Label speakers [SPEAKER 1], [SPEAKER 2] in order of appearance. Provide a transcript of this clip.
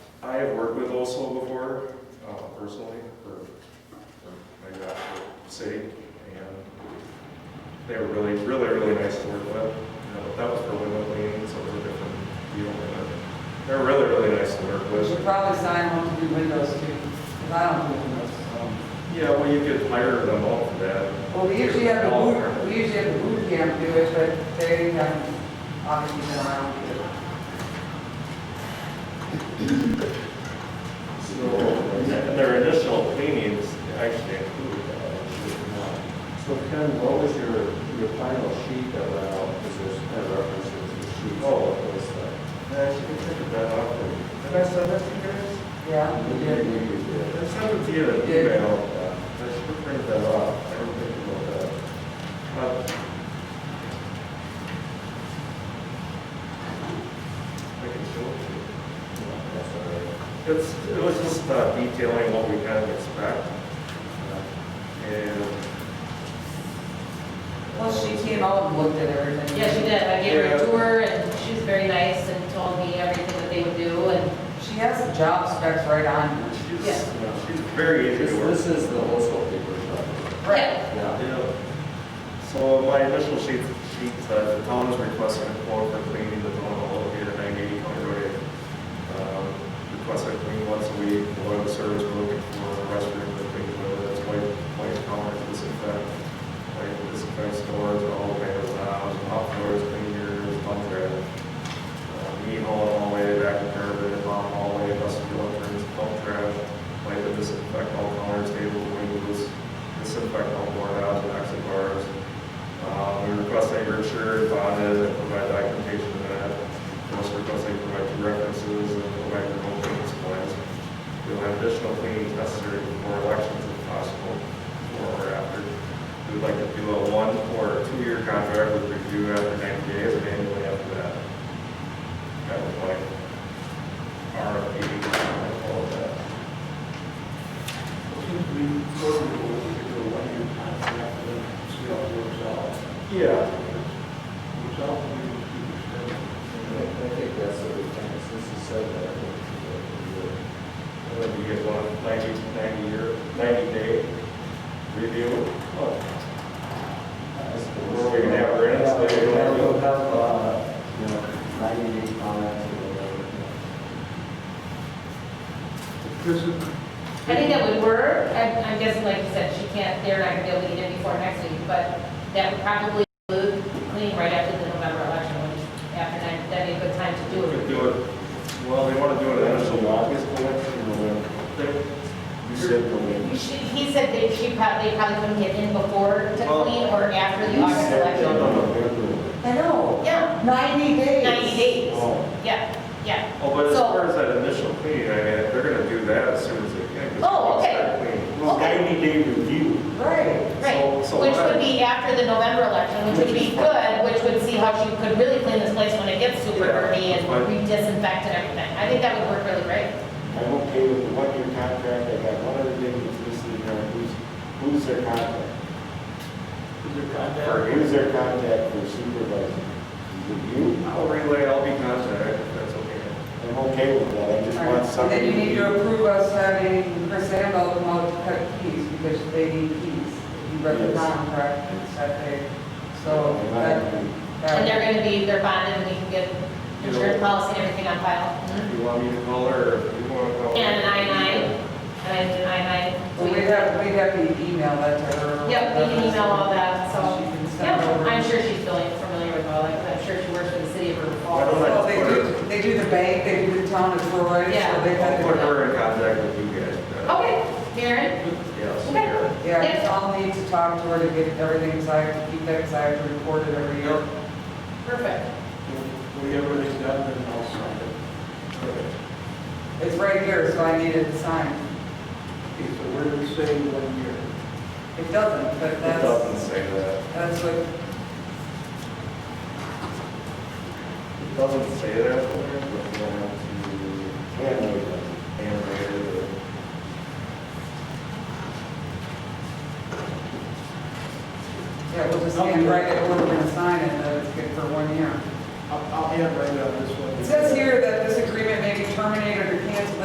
[SPEAKER 1] I have worked with OSO before, uh, personally, for, for my job for the city, and they were really, really, really nice to work with. You know, That was for window cleaning, so it was a different deal, but they were really, really nice to work
[SPEAKER 2] We
[SPEAKER 1] with.
[SPEAKER 2] should probably sign them to do windows too, because I don't do windows, so.
[SPEAKER 1] Yeah, well, you could hire them all for that.
[SPEAKER 2] Well, we usually have the boot, we usually have the boot camp do it, but they haven't, obviously, been around to do it.
[SPEAKER 1] And their initial cleanings actually include that.
[SPEAKER 3] So Ken, what was your, your final sheet that went out, because there's kind of references to sheets.
[SPEAKER 1] Oh.
[SPEAKER 3] Those that-
[SPEAKER 1] Actually, I took that off, and I sent that to you guys.
[SPEAKER 2] Yeah, we
[SPEAKER 3] We did,
[SPEAKER 2] did.
[SPEAKER 3] we used it.
[SPEAKER 1] I sent it to you in an email. I should print that off. I didn't think about that. Uh, I can show it to you.
[SPEAKER 3] That's all right.
[SPEAKER 1] It's, it was just uh, detailing what we kind of expect. uh, And.
[SPEAKER 2] Well, she came out and looked at everything.
[SPEAKER 4] Yeah, she did. I gave her
[SPEAKER 1] Yeah.
[SPEAKER 4] a tour and she was very nice and told me everything that they would do and
[SPEAKER 2] She has the job specs right on her.
[SPEAKER 1] She's,
[SPEAKER 4] Yeah.
[SPEAKER 1] she's very easy
[SPEAKER 3] This,
[SPEAKER 1] to work
[SPEAKER 3] this is the wholesale paper shop.
[SPEAKER 2] Right.
[SPEAKER 3] Yeah.
[SPEAKER 1] Yeah. So my initial sheet, sheet said the town is requesting a quote for cleaning the town hall here at nine eighty County Road. eight. Um, Request I clean once a week, oil the service, we're looking for a restroom to clean, whether that's white, white counter, disinfect, like disinfect stores, all the way to lounge, top floors, clean your bunk bed. Uh, Me hall, hallway, back and curb, bottom hallway, vestibule entrance, pump trash, like the disinfect all counters, tables, windows, disinfect all boardhouses and exit bars. Um, We request that you're insured, bonded, and provide documentation of that. We also request that you provide two references and provide your own maintenance plans. You'll have additional cleanings necessary before elections if possible, or after. We would like to do a one or two-year contract with review after 90 days and annually after that. That was like RFP, all of that.
[SPEAKER 5] We probably will do a one-year contract and then see how it works out.
[SPEAKER 1] Yeah.
[SPEAKER 5] Works out, we will keep it
[SPEAKER 3] I I think that's what we can, since you said that. I think we did.
[SPEAKER 1] Whether you get one 90 90 year, ninety day review.
[SPEAKER 3] Where
[SPEAKER 1] we can have grants, they don't have-
[SPEAKER 3] We'll have, uh, you know, ninety day comments or whatever.
[SPEAKER 5] straight.
[SPEAKER 4] I think that would work. I'm, I'm guessing, like you said, she can't, they're not gonna be able to get in before next week, but that would probably include cleaning right after the November election, which after that, that'd be a good time to do
[SPEAKER 1] We
[SPEAKER 4] it.
[SPEAKER 1] could do it, well, they want to do it in initial August election, November.
[SPEAKER 3] You said the
[SPEAKER 4] You should- He said that she probably, probably couldn't get in before to
[SPEAKER 1] Well,
[SPEAKER 4] clean or after the August election.
[SPEAKER 2] I know.
[SPEAKER 4] Yeah,
[SPEAKER 2] Ninety days.
[SPEAKER 4] 90 days.
[SPEAKER 1] Oh,
[SPEAKER 4] Yeah, yeah.
[SPEAKER 1] Oh, but as
[SPEAKER 4] So-
[SPEAKER 1] far as that initial clean, I mean, they're going to do that as soon as they can. 'cause
[SPEAKER 4] Oh,
[SPEAKER 1] once
[SPEAKER 4] okay.
[SPEAKER 1] they're clean.
[SPEAKER 4] Okay,
[SPEAKER 3] day review.
[SPEAKER 2] Right.
[SPEAKER 4] right.
[SPEAKER 1] so
[SPEAKER 4] Which
[SPEAKER 1] what-
[SPEAKER 4] would be after the November election, which would be good, which would see how she could really clean this place when it gets super
[SPEAKER 1] Yeah,
[SPEAKER 4] dirty and
[SPEAKER 1] but-
[SPEAKER 4] we disinfect and everything. I think that would work really great.
[SPEAKER 3] I'm okay with the one-year contract, I got one other thing that's listed in there, who's, who's their contact?
[SPEAKER 5] Is there contact?
[SPEAKER 3] Or who's their contact for supervisor? Is it you?
[SPEAKER 1] I'll relay, I'll be contacted, if that's okay.
[SPEAKER 3] I'm okay with that, I just want
[SPEAKER 2] Alright,
[SPEAKER 3] something.
[SPEAKER 2] Then you need to approve us having Chris Ambo come out to cut keys because they need keys. You read the
[SPEAKER 3] Yes.
[SPEAKER 2] contract and stuff there. So
[SPEAKER 3] And I-
[SPEAKER 2] that. that-
[SPEAKER 4] And they're gonna be, they're bonded, and we can get insurance policy and everything on file.
[SPEAKER 1] If you want me to call her, or if you want to call.
[SPEAKER 4] And an I nine, and an I
[SPEAKER 2] Well,
[SPEAKER 4] nine.
[SPEAKER 2] we have, we have to email that to her.
[SPEAKER 4] Yep, we can email all that,
[SPEAKER 2] She
[SPEAKER 4] so.
[SPEAKER 2] can send
[SPEAKER 4] Yep,
[SPEAKER 2] over.
[SPEAKER 4] I'm sure she's feeling familiar with all that, 'cause I'm sure she works for the city of River
[SPEAKER 1] I don't
[SPEAKER 4] Falls.
[SPEAKER 1] know.
[SPEAKER 2] Well, they do, they do the bank, they do the town of Troy, so
[SPEAKER 4] Yeah.
[SPEAKER 2] they
[SPEAKER 1] I'll put
[SPEAKER 2] have to.
[SPEAKER 1] her in contact with you guys. uh,
[SPEAKER 4] Okay, Karen?
[SPEAKER 1] Yes.
[SPEAKER 4] Oh, Okay.
[SPEAKER 1] yeah.
[SPEAKER 2] Yeah, it's all need to talk to her to get everything exact, to keep that exact recorded every year.
[SPEAKER 4] Perfect.
[SPEAKER 5] If We have everything done, then I'll sign it.
[SPEAKER 2] It's right here, so I need it signed.
[SPEAKER 5] Okay, so where do we say one year?
[SPEAKER 2] It doesn't, but
[SPEAKER 1] It
[SPEAKER 2] that's,
[SPEAKER 1] doesn't say that.
[SPEAKER 2] that's what,
[SPEAKER 1] It doesn't say that, but we'll have
[SPEAKER 3] Yeah, no, it doesn't.
[SPEAKER 1] to handwrite it.
[SPEAKER 2] yeah, we'll just hand right it over and sign it, that it's good for one year.
[SPEAKER 5] I'll, I'll hand right out this one.
[SPEAKER 2] It says here that this agreement may be terminated or canceled